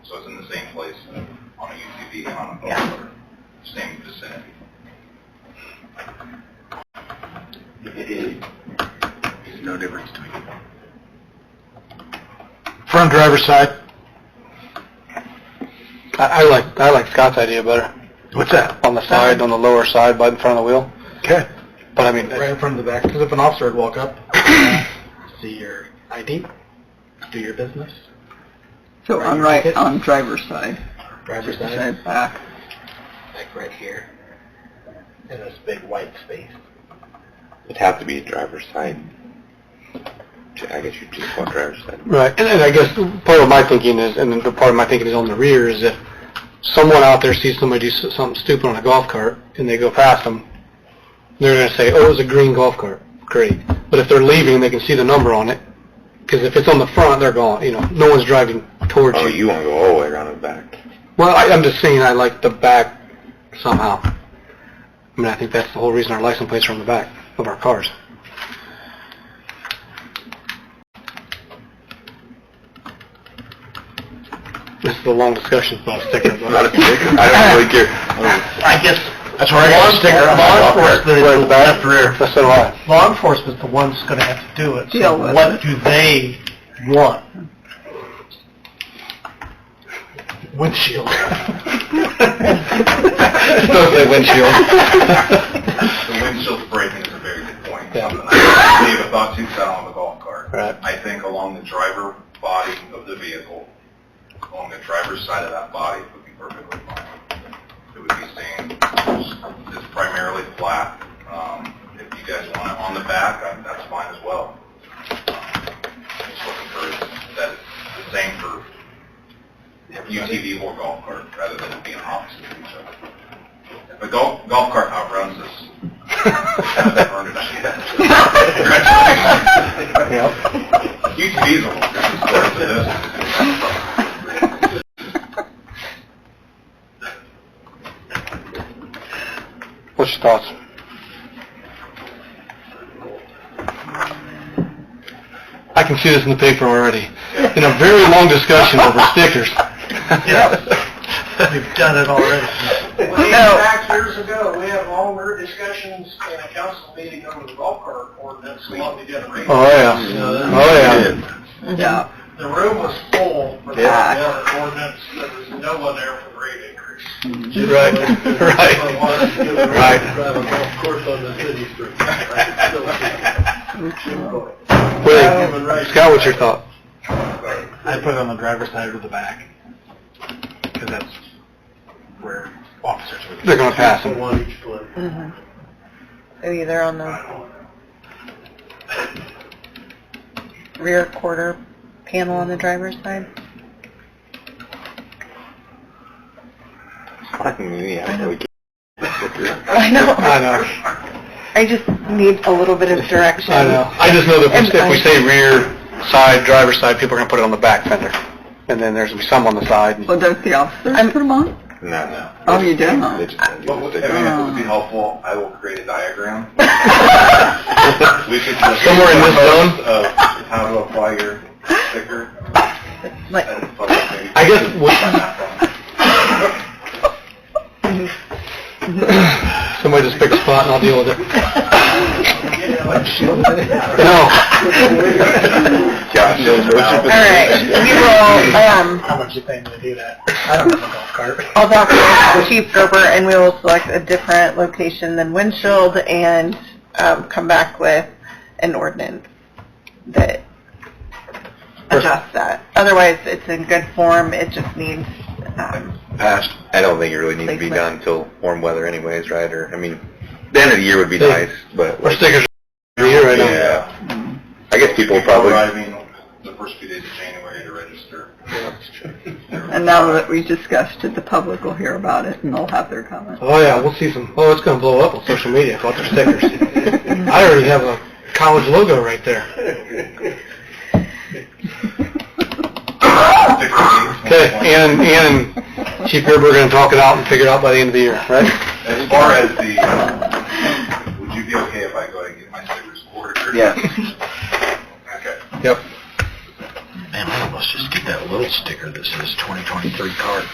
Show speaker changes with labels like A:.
A: So it's in the same place on a UTV and on a golf
B: Yeah.
A: cart, same vicinity. No difference between them.
C: Front driver's side. I, I like, I like Scott's idea better. What's that? On the side, on the lower side, by in front of the wheel. Okay. But I mean. Right in front of the back, because if an officer would walk up, see your ID, do your business,
B: So on right, on driver's side,
C: driver's
B: just to say back.
C: like right here, in this big white space.
D: It'd have to be driver's side. Ju- I guess you just want driver's side.
C: Right, and, and I guess part of my thinking is, and the part of my thinking is on the rear, is if someone out there sees somebody do s- something stupid on a golf cart and they go past them, they're going to say, oh, it was a green golf cart. Great. But if they're leaving, they can see the number on it. Because if it's on the front, they're gone. You know, no one's driving towards
D: Oh,
C: you.
D: you want to go all the way around the back.
C: Well, I, I'm just saying I like the back somehow. I mean, I think that's the whole reason our license plates are on the back of our cars. This is a long discussion about a sticker.
D: Not
C: But
D: a sticker. I don't really care. I
E: I guess
C: that's where I got a sticker.
E: on my golf cart.
C: the back rear. That's so do I.
E: law enforcement's the one's going to have to do it.
B: Deal
E: So
B: with
E: what
B: it.
E: do they want? Windshield.
C: Don't say windshield.
A: The windshield breaking is a very good point.
C: Yeah.
A: Something I gave a thought to 'cause I don't have a golf cart.
C: Right.
A: I think along the driver body of the vehicle, along the driver's side of that body would be perfectly fine. It would be staying, it's- it's primarily flat. Um, If you guys want it on the back, I- that's fine as well. Um, Just looking for that, it's the same for UTV or golf cart, rather than it being opposite to each other. If a golf, golf cart outruns us, UTVs are one of
C: What's your thoughts? I can see this in the paper already. In a very long discussion over stickers.
E: We've done it already.
F: Back years ago, we had longer discussions in a council meeting over the golf cart ordinance, than what we did in Reed.
C: Oh, yeah. Oh, yeah.
B: Yeah.
F: The room was full for the other ordinance, there was no one there for the rate increase.
C: Right, right. Right.
F: Of course, on the city street.
C: Wait, Scott, what's your thought?
E: I put it on the driver's side or the back. Because that's where officers would
C: They're gonna pass them.
E: One each foot.
G: Either Uh-huh. on the rear quarter panel on the driver's side?
D: Fucking me. I don't really care.
G: I know.
C: I know,
G: I just need a little bit of direction.
C: I know. I just know that if we- if we
G: And I-
C: say rear side, driver's side, people are gonna put it on the back fender. And then there's gonna be some on the side. and-
B: Well, don't the officers put them on?
D: No, no.
B: Oh, you do?
D: They just don't do
A: But
D: the
A: would- I
D: sticker.
A: mean, if it would be helpful, I will create a diagram. We should just-
C: Somewhere in this zone?
A: Of how to apply your sticker.
G: Like,
A: and fuck it, maybe-
C: I guess what- somebody just pick a spot and I'll deal with it. No.
D: Josh,
G: all right, we will, um,
E: How much you paying to do that? I don't have a golf cart.
G: I'll talk to Chief Gerber and we will select a different location than windshield and, um, come back with an ordinance that adjusts that. Otherwise, it's in good form, it just needs, um,
D: Past, I don't think it really needs to be
G: Placement.
D: done until warm weather anyways, right? Or, I mean, the end of the year would be
C: They-
D: nice, but...
C: Our
D: like,
C: stickers are here right now.
D: Yeah. I guess people
A: People
D: will probably...
A: Arriving the first few days of January to register.
B: And now that we discussed it, the public will hear about it and they'll have their comments.
C: Oh yeah, we'll see some. Oh, it's gonna blow up on social media about their stickers. I already have a college logo right there. Okay, Ann and Ann and Chief Gerber are gonna talk it out and figure it out by the end of the year, right?
A: As far as the, would you be okay if I go and get my stickers ordered?
D: Yeah.
A: Okay.
C: Yep.
E: Man, I almost just did
C: that little sticker that says 2023 card.